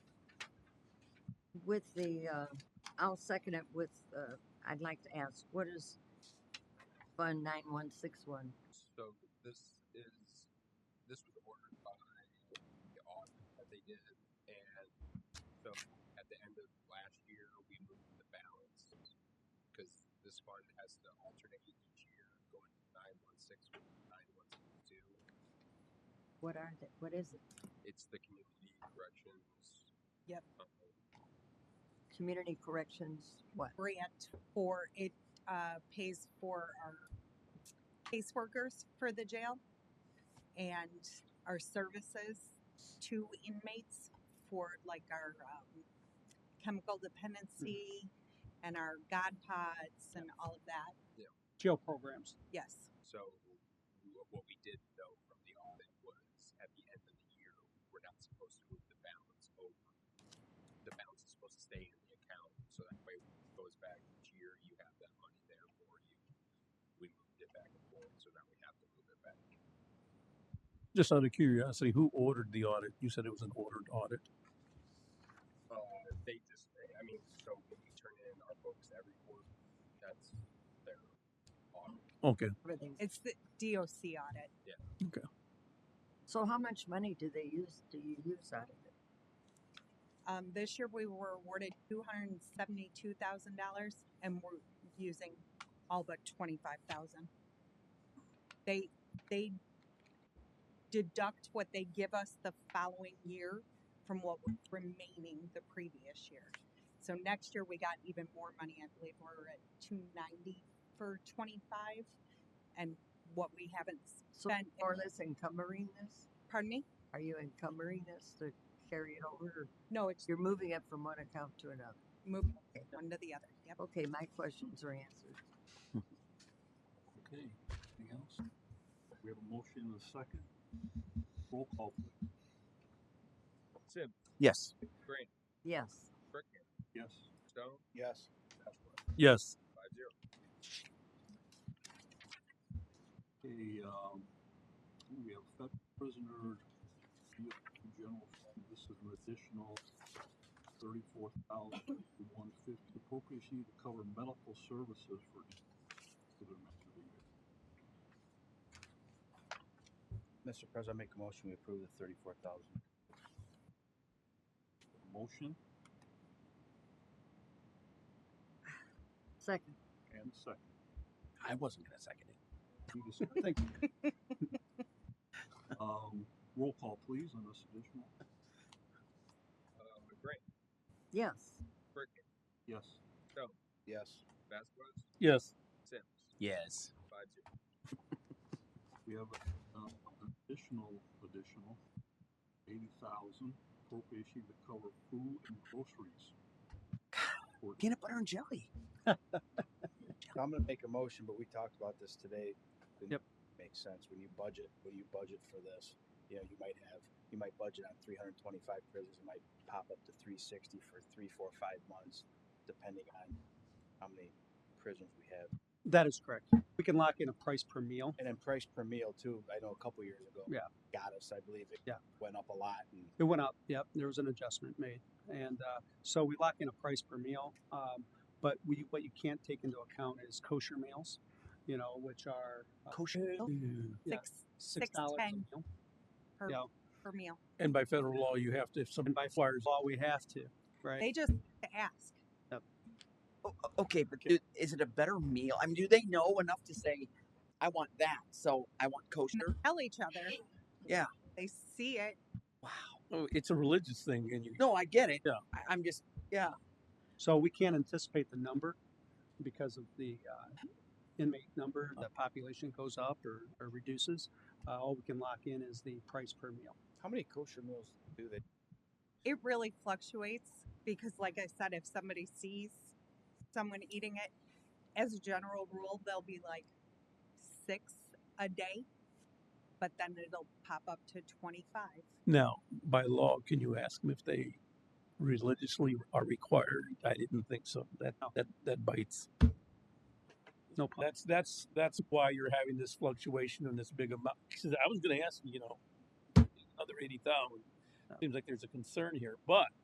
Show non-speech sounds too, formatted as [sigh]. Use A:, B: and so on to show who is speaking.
A: with the, uh, I'll second it with, uh, I'd like to ask, what is Fund nine one six one?
B: So this is, this was ordered by the audit that they did, and so at the end of last year, we moved the balance. Cause this fund has to alternate each year, going to nine one six one, nine one six two.
A: What are they, what is it?
B: It's the community corrections.
C: Yep.
B: um,
A: Community corrections, what?
C: grant for it uh, pays for our caseworkers for the jail and our services to inmates for like our um, chemical dependency and our God pods and all of that.
D: jail programs.
C: Yes.
B: So w- what we did know from the audit was at the end of the year, we're not supposed to move the balance over. The balance is supposed to stay in the account, so that way when it goes back each year, you have that money there for you. We moved it back and forth, so now we have to move it back.
E: Just out of curiosity, who ordered the audit? You said it was an ordered audit.
B: Uh, they just, I mean, so when we turn in our books every quarter, that's their audit.
E: Okay.
A: Everything's-
C: It's the DOC audit.
A: So how much money do they use, do you use out of it?
C: Um, this year we were awarded $272,000 and we're using all but 25,000. They, they deduct what they give us the following year from what was remaining the previous year. So next year we got even more money. I believe we're at 290 for 25 and what we haven't, s-
A: So
C: Spend-
A: more or less encumbering this?
C: pardon me?
A: Are you encumbering this to carry it over? or
C: No, it's
A: You're moving it from one account to another.
C: moving one to the other. Yep.
A: Okay, my questions are answered.
D: Okay, anything else? We have a motion and a second. Roll call, please.
B: Sim,
F: Yes.
B: Grant,
A: Yes.
B: Brickman,
D: Yes.
B: Stone,
F: Yes.
B: Ashworth,
E: Yes.
B: five zero.
D: Okay, um, we have fed prisoner, we have the general, fund. this is an additional thirty-four thousand one fifty appropriation to cover medical services for, for the rest of the year.
F: Mr. President, I make a motion we approve the thirty-four thousand.
D: Motion
A: Second,
D: and second.
F: I wasn't gonna second it.
D: Any discussion? Thank you.
F: [laughs]
D: Um, roll call please on this additional.
B: Uh, Grant,
A: yes.
B: Brickman,
D: Yes.
B: Stone,
F: Yes.
B: Vasquez,
E: Yes.
B: Sims,
F: Yes.
B: five zero.
D: We have uh, an additional, additional eighty thousand appropriation to cover food and groceries. for-
F: Peanut butter and jelly.
G: I'm gonna make a motion, but we talked about this today. Didn't
E: Yep.
G: Make sense. When you budget, when you budget for this, you know, you might have, you might budget on three hundred and twenty-five prisons, it might pop up to three sixty for three, four, five months, depending on how many prisons we have.
D: That is correct. We can lock in a price per meal.
G: And then price per meal too, I know a couple years ago.
D: Yeah.
G: Got us, I believe it.
D: Yeah.
G: Went up a lot and
D: It went up. Yep, there was an adjustment made, and uh, so we lock in a price per meal. Um, but we, what you can't take into account is kosher meals, you know, which are uh,
F: Kosher meal?
D: Yeah.
C: Six
D: six dollars a
C: $6.10.
D: meal.
C: per,
D: Yeah.
C: per meal.
E: And by federal law, you have to, if
D: And
E: somebody
D: by
E: requires,
D: law, we have to, right?
C: They just ask.
F: O- o- Okay, but do- is it a better meal? I mean, do they know enough to say, I want that, so I want kosher?
C: tell each other.
F: Yeah.
C: They see it.
E: oh, it's a religious thing and you,
F: No, I get it.
E: Yeah.
F: I, I'm just,
D: So we can't anticipate the number because of the uh, inmate number, the population goes up or, or reduces. Uh, all we can lock in is the price per meal.
G: how many kosher meals do they?
C: It really fluctuates because, like I said, if somebody sees someone eating it, as a general rule, they'll be like six a day, but then it'll pop up to 25.
E: now, by law, can you ask them if they religiously are required? I didn't think so. That, that, that bites.
D: No problem.
E: That's, that's, that's why you're having this fluctuation and this big amount. 'Cause I was gonna ask, you know, another eighty thousand. Seems like there's a concern here, but